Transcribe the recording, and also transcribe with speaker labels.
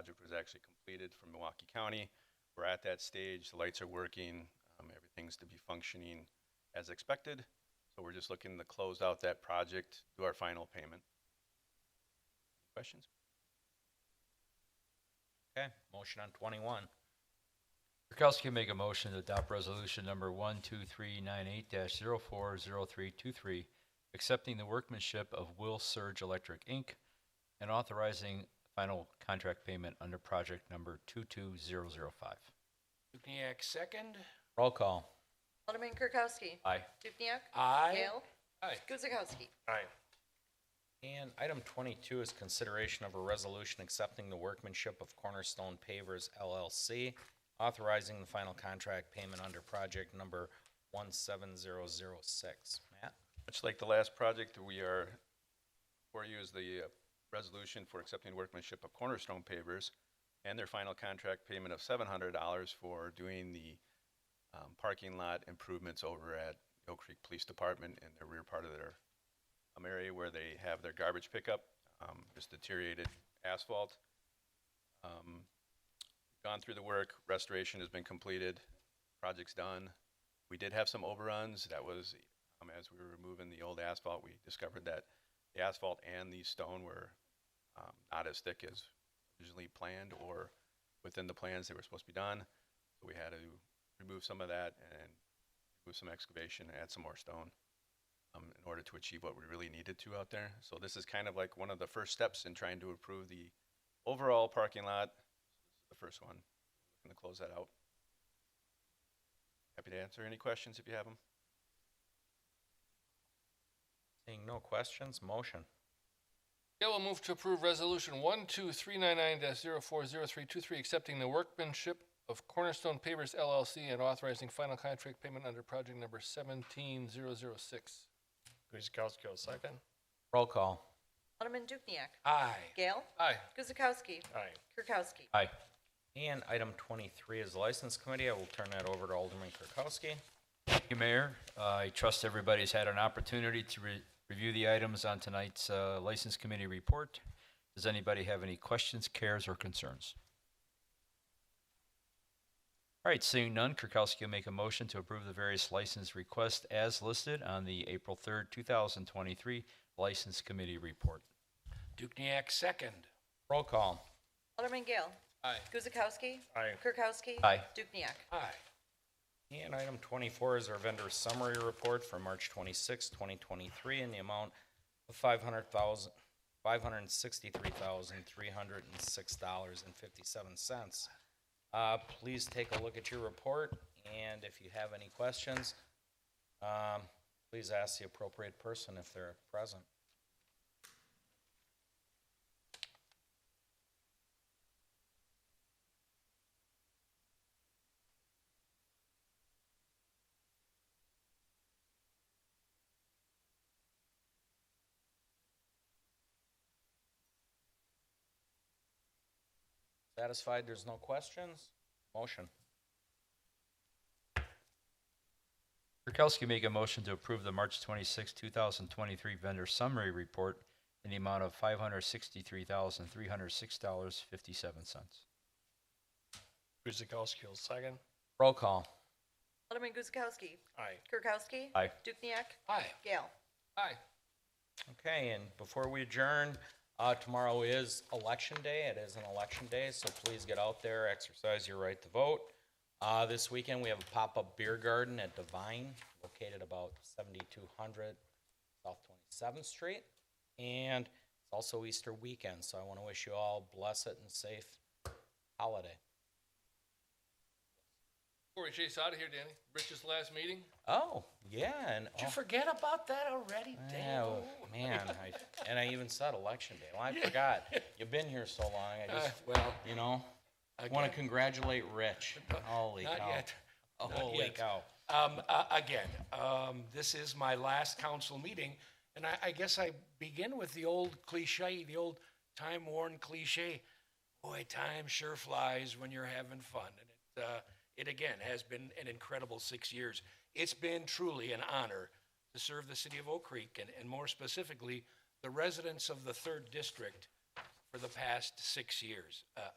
Speaker 1: project was actually completed from Milwaukee County. We're at that stage, the lights are working, um, everything's to be functioning as expected. So we're just looking to close out that project, do our final payment. Questions?
Speaker 2: Okay, motion on twenty-one.
Speaker 3: Kirkowski make a motion to adopt resolution number one two three nine eight dash zero four zero three two three, accepting the workmanship of Will Surge Electric, Inc., and authorizing final contract payment under project number two two zero zero five.
Speaker 2: Dukniak second. Roll call.
Speaker 4: Alderman Kirkowski.
Speaker 3: Aye.
Speaker 4: Dukniak.
Speaker 2: Aye.
Speaker 4: Gale.
Speaker 2: Aye.
Speaker 4: Guzekowski.
Speaker 2: Aye. And item twenty-two is consideration of a resolution accepting the workmanship of Cornerstone Pavers LLC, authorizing the final contract payment under project number one seven zero zero six. Matt?
Speaker 1: Much like the last project, we are, for you is the uh, resolution for accepting workmanship of Cornerstone Pavers and their final contract payment of seven hundred dollars for doing the um, parking lot improvements over at Oak Creek Police Department in the rear part of their um, area where they have their garbage pickup, um, just deteriorated asphalt. Um, Gone through the work, restoration has been completed, project's done. We did have some overruns. That was um, as we were removing the old asphalt, we discovered that the asphalt and the stone were um, not as thick as originally planned or within the plans they were supposed to be done. So we had to remove some of that and do some excavation, and add some more stone um, in order to achieve what we really needed to out there. So this is kind of like one of the first steps in trying to improve the overall parking lot. The first one, going to close that out. Happy to answer any questions if you have them.
Speaker 2: Seeing no questions, motion.
Speaker 5: Gail will move to approve resolution one two three nine nine 40323 accepting the workmanship of Cornerstone Pavers LLC and authorizing final contract payment under project number seventeen zero zero six. Guzekowski will second.
Speaker 2: Roll call.
Speaker 4: Alderman Dukniak.
Speaker 5: Aye.
Speaker 4: Gale.
Speaker 5: Aye.
Speaker 4: Guzekowski.
Speaker 5: Aye.
Speaker 4: Kirkowski.
Speaker 3: Aye.
Speaker 2: And item twenty-three is the License Committee. I will turn that over to Alderman Kirkowski.
Speaker 3: Thank you, Mayor. Uh, I trust everybody's had an opportunity to re- review the items on tonight's uh, License Committee report. Does anybody have any questions, cares, or concerns? All right, seeing none, Kirkowski will make a motion to approve the various license requests as listed on the April 3rd, 2023 License Committee report.
Speaker 5: Dukniak second.
Speaker 2: Roll call.
Speaker 4: Alderman Gale.
Speaker 5: Aye.
Speaker 4: Guzekowski.
Speaker 5: Aye.
Speaker 4: Kirkowski.
Speaker 3: Aye.
Speaker 4: Dukniak.
Speaker 5: Aye.
Speaker 2: And item twenty-four is our vendor summary report for March twenty-sixth, twenty twenty-three, in the amount of five hundred thousand, five hundred and sixty-three thousand, three hundred and six dollars and fifty-seven cents. Uh, please take a look at your report, and if you have any questions, um, please ask the appropriate person if they're present. Satisfied there's no questions? Motion.
Speaker 3: Kirkowski make a motion to approve the March 26, 2023 vendor summary report in the amount of $563,306.57.
Speaker 5: Guzekowski will second.
Speaker 2: Roll call.
Speaker 4: Alderman Guzekowski.
Speaker 5: Aye.
Speaker 4: Kirkowski.
Speaker 3: Aye.
Speaker 4: Dukniak.
Speaker 5: Aye.
Speaker 4: Gale.
Speaker 5: Aye.
Speaker 2: Okay, and before we adjourn, uh, tomorrow is election day. It is an election day, so please get out there, exercise your right to vote. Uh, this weekend, we have a pop-up beer garden at Divine, located about seventy-two hundred South Twenty-seventh Street. And it's also Easter weekend, so I want to wish you all blessed and safe holiday.
Speaker 5: Before we chase out of here, Danny, Rich's last meeting.
Speaker 2: Oh, yeah, and.
Speaker 5: Did you
Speaker 2: oh,
Speaker 5: forget about that already, Danny?
Speaker 2: Oh, man, I, and I even said election day. Well, I forgot. You've been here so long, I
Speaker 5: Uh,
Speaker 2: just,
Speaker 5: well,
Speaker 2: you know?
Speaker 5: I
Speaker 2: Want to congratulate Rich. Holy
Speaker 5: not
Speaker 2: cow.
Speaker 5: yet. Not
Speaker 2: Holy
Speaker 5: yet.
Speaker 2: cow.
Speaker 5: Um, uh, again, um, this is my last council meeting, and I, I guess I begin with the old cliche, the old time worn cliche. Boy, time sure flies when you're having fun. And it, uh, it again has been an incredible six years. It's been truly an honor to serve the city of Oak Creek and, and more specifically, the residents of the third district for the past six years. Uh,